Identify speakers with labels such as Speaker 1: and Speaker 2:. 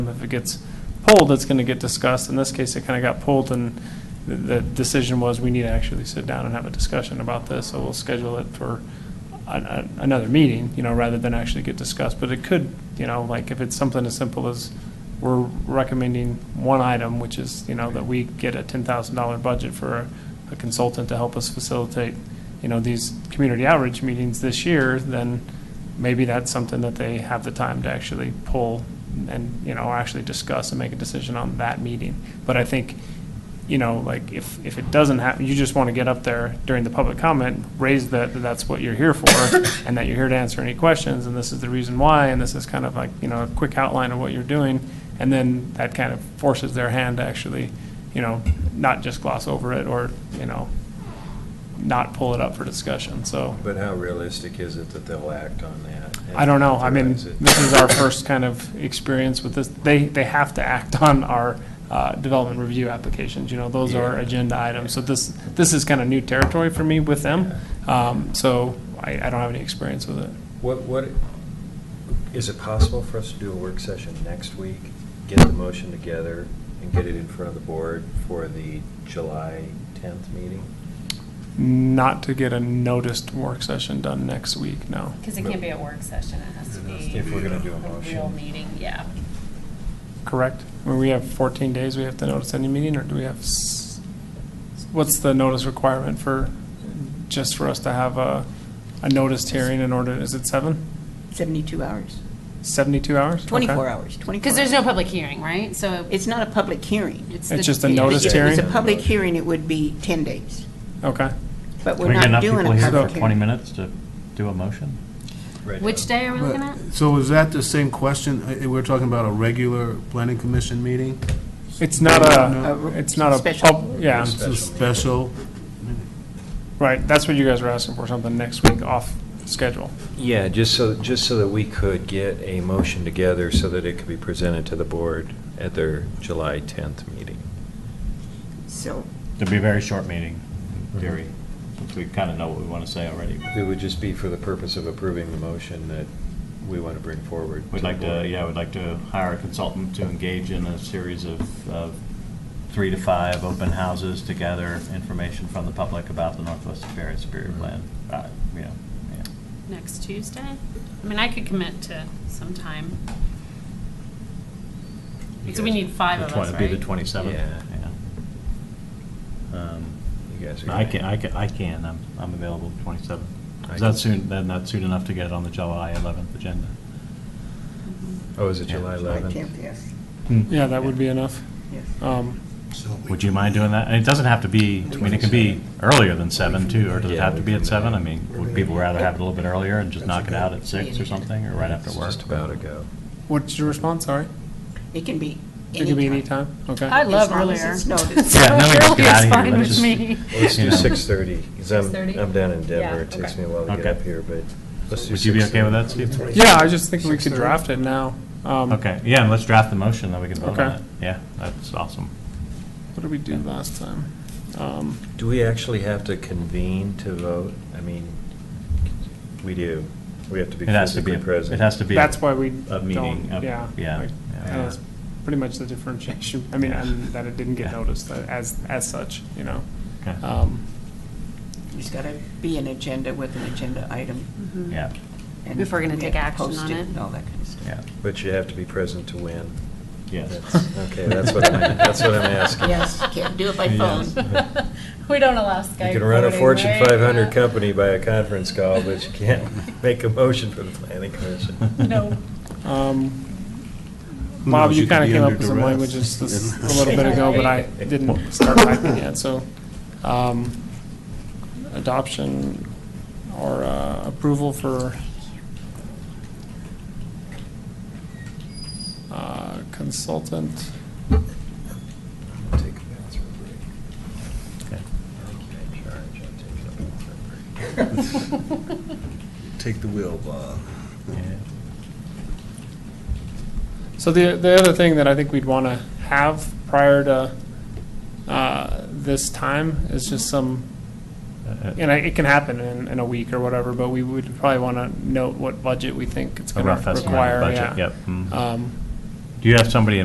Speaker 1: If it gets pulled, it's going to get discussed. In this case, it kind of got pulled, and the- the decision was, we need to actually sit down and have a discussion about this, so we'll schedule it for an- an- another meeting, you know, rather than actually get discussed. But it could, you know, like, if it's something as simple as, we're recommending one item, which is, you know, that we get a $10,000 budget for a consultant to help us facilitate, you know, these community outreach meetings this year, then maybe that's something that they have the time to actually pull and, you know, actually discuss and make a decision on that meeting. But I think, you know, like, if, if it doesn't happen, you just want to get up there during the public comment, raise that, that that's what you're here for, and that you're here to answer any questions, and this is the reason why, and this is kind of like, you know, a quick outline of what you're doing, and then that kind of forces their hand to actually, you know, not just gloss over it, or, you know, not pull it up for discussion, so.
Speaker 2: But how realistic is it that they'll act on that?
Speaker 1: I don't know. I mean,
Speaker 2: Authorize it?
Speaker 1: this is our first kind of experience with this. They, they have to act on our uh, development review applications, you know, those are
Speaker 2: Yeah.
Speaker 1: agenda items. So this, this is kind of new territory for me with them. Um, So I, I don't have any experience with it.
Speaker 2: What, what, is it possible for us to do a work session next week, get the motion together, and get it in front of the board for the July 10th meeting?
Speaker 1: Not to get a noticed work session done next week, no.
Speaker 3: Because it can't be a work session, it has to be.
Speaker 2: If we're gonna do a
Speaker 3: real
Speaker 2: motion.
Speaker 3: meeting, yeah.
Speaker 1: Correct? When we have 14 days, we have to notice any meeting, or do we have, s- what's the notice requirement for, just for us to have a, a noticed hearing in order, is it seven?
Speaker 4: 72 hours,
Speaker 1: 72 hours? Okay.
Speaker 4: 24 hours, 24.
Speaker 3: Because there's no public hearing, right? So
Speaker 4: It's not a public hearing.
Speaker 1: It's
Speaker 3: it's. the-
Speaker 1: just a
Speaker 3: yeah.
Speaker 1: notice
Speaker 4: If
Speaker 2: hearing?
Speaker 4: It's a public hearing, it would be 10 days,
Speaker 1: Okay.
Speaker 4: but
Speaker 5: Can
Speaker 4: we're
Speaker 5: we get
Speaker 4: not
Speaker 5: enough
Speaker 4: doing a
Speaker 5: people
Speaker 4: public
Speaker 5: here
Speaker 4: hearing.
Speaker 5: for 20 minutes to do a motion?
Speaker 2: Right
Speaker 3: Which
Speaker 2: now.
Speaker 3: day are we looking at?
Speaker 6: So is that the same question? Uh, We're talking about a regular planning commission meeting?
Speaker 1: It's not a,
Speaker 4: No.
Speaker 1: it's not a,
Speaker 4: Special.
Speaker 1: pub- yeah,
Speaker 6: It's
Speaker 2: Special
Speaker 6: a special,
Speaker 1: right, that's what you guys were asking for, something next week off schedule.
Speaker 2: Yeah, just so, just so that we could get a motion together so that it could be presented to the board at their July 10th meeting.
Speaker 4: So,
Speaker 5: It'd be a very short meeting, in theory, since we kind of know what we want to say already.
Speaker 2: It would just be for the purpose of approving the motion that we want to bring forward.
Speaker 5: We'd
Speaker 2: the
Speaker 5: like to,
Speaker 2: board.
Speaker 5: yeah, we'd like to hire a consultant to engage in a series of, of three to five open houses to gather information from the public about the Northwest Superior Superior Plan. Uh, You know, yeah.
Speaker 3: Next Tuesday? I mean, I could commit to some time. So we need five
Speaker 5: The
Speaker 3: of
Speaker 5: twen-
Speaker 3: us,
Speaker 5: It'd be the
Speaker 3: right?
Speaker 5: 27th.
Speaker 2: Yeah.
Speaker 5: yeah. Um,
Speaker 2: You guys are.
Speaker 5: I can, I can, I can, I'm, I'm available 27th.
Speaker 2: I
Speaker 5: Is that
Speaker 2: can-
Speaker 5: soon, then that's soon enough to get it on the July 11th agenda?
Speaker 2: Oh, is it
Speaker 5: Yeah,
Speaker 2: July
Speaker 4: July
Speaker 2: 11th?
Speaker 4: 10th, yes,
Speaker 1: Hmm. Yeah, that would be enough.
Speaker 4: yes.
Speaker 1: Um,
Speaker 5: Would you mind doing that? And it doesn't have to be, I mean, it could be earlier than seven too, or does it have to be
Speaker 2: uh,
Speaker 5: at seven? I mean, would people rather have it a little bit earlier and just knock it out at six or something, or right after
Speaker 2: It's
Speaker 5: work?
Speaker 2: Just about to go.
Speaker 1: What's your response, sorry?
Speaker 4: It can be
Speaker 1: It could be any
Speaker 4: anytime. Uh,
Speaker 1: time, okay?
Speaker 3: I love
Speaker 4: As long
Speaker 3: earlier.
Speaker 4: as it's noticed.
Speaker 5: Yeah, then we just get out of
Speaker 3: Earlier's fine
Speaker 5: here. Let's
Speaker 3: with
Speaker 5: just-
Speaker 3: me.
Speaker 2: Let's
Speaker 5: You
Speaker 2: do
Speaker 5: know.
Speaker 2: six thirty, because I'm,
Speaker 3: 6:30?
Speaker 2: I'm down in
Speaker 3: Yeah,
Speaker 2: Denver, it takes
Speaker 3: okay.
Speaker 2: me a while to get
Speaker 5: Okay.
Speaker 2: up here, but let's do
Speaker 5: Would you be okay with
Speaker 2: 6:30.
Speaker 5: that, Steve?
Speaker 1: Yeah, I just think we could draft it now. Um,
Speaker 5: Okay, yeah, and let's draft the motion, then we can vote on
Speaker 1: Okay.
Speaker 5: it. Yeah, that's awesome.
Speaker 1: What did we do last time? Um,
Speaker 2: Do we actually have to convene to vote? I mean, we do, we have to be
Speaker 5: It has to be,
Speaker 2: physically
Speaker 5: it
Speaker 2: present.
Speaker 5: has to be.
Speaker 1: That's why we
Speaker 5: a meeting,
Speaker 1: don't,
Speaker 5: a-
Speaker 1: yeah.
Speaker 5: yeah,
Speaker 1: like,
Speaker 5: yeah.
Speaker 1: That's pretty much the differentiation, I mean,
Speaker 5: Yeah.
Speaker 1: and that it didn't get
Speaker 5: Yeah.
Speaker 1: noticed uh, as, as such, you know?
Speaker 5: Okay.
Speaker 1: Um,
Speaker 4: There's got to be an agenda with an agenda item.
Speaker 3: Mhm.
Speaker 5: Yeah,
Speaker 4: and
Speaker 3: If we're gonna
Speaker 4: we
Speaker 3: take
Speaker 4: have to
Speaker 3: action
Speaker 4: post
Speaker 3: on it.
Speaker 4: And all that kind of stuff.
Speaker 5: yeah,
Speaker 2: But you have to be present to win.
Speaker 5: yes.
Speaker 2: That's- Okay, that's what I'm, that's what I'm asking. You
Speaker 4: Yes, can't do it by
Speaker 5: Yeah.
Speaker 4: phone.
Speaker 3: We don't allow Skype.
Speaker 2: can run a
Speaker 3: recording,
Speaker 2: Fortune
Speaker 3: right?
Speaker 2: five hundred
Speaker 3: Yeah.
Speaker 2: company by a conference call, but you can't make a motion for the planning commission.
Speaker 3: No.
Speaker 1: um,
Speaker 6: Who
Speaker 1: Bob,
Speaker 6: knows,
Speaker 1: you
Speaker 6: you could
Speaker 1: kind of
Speaker 6: be
Speaker 1: came up
Speaker 6: under
Speaker 1: with some
Speaker 6: duress.
Speaker 1: language just this- a little bit ago, but I didn't start typing yet, so. um, Adoption or uh, approval for uh, consultant.
Speaker 2: Take a bathroom break.
Speaker 5: Okay.
Speaker 2: I'm in charge, I'm taking a bathroom break.
Speaker 7: Take the wheel, Bob.
Speaker 5: Yeah.
Speaker 1: So the, the other thing that I think we'd want to have prior to uh, this time is just some
Speaker 5: Uh,
Speaker 1: And I- it can happen in, in a week or whatever, but we would probably want to note what budget we think it's
Speaker 5: A
Speaker 1: going
Speaker 5: rough
Speaker 1: to
Speaker 5: estimate of the
Speaker 1: require.
Speaker 5: budget,
Speaker 1: yeah.
Speaker 5: yep. mhm.
Speaker 1: Um,
Speaker 5: Do you have somebody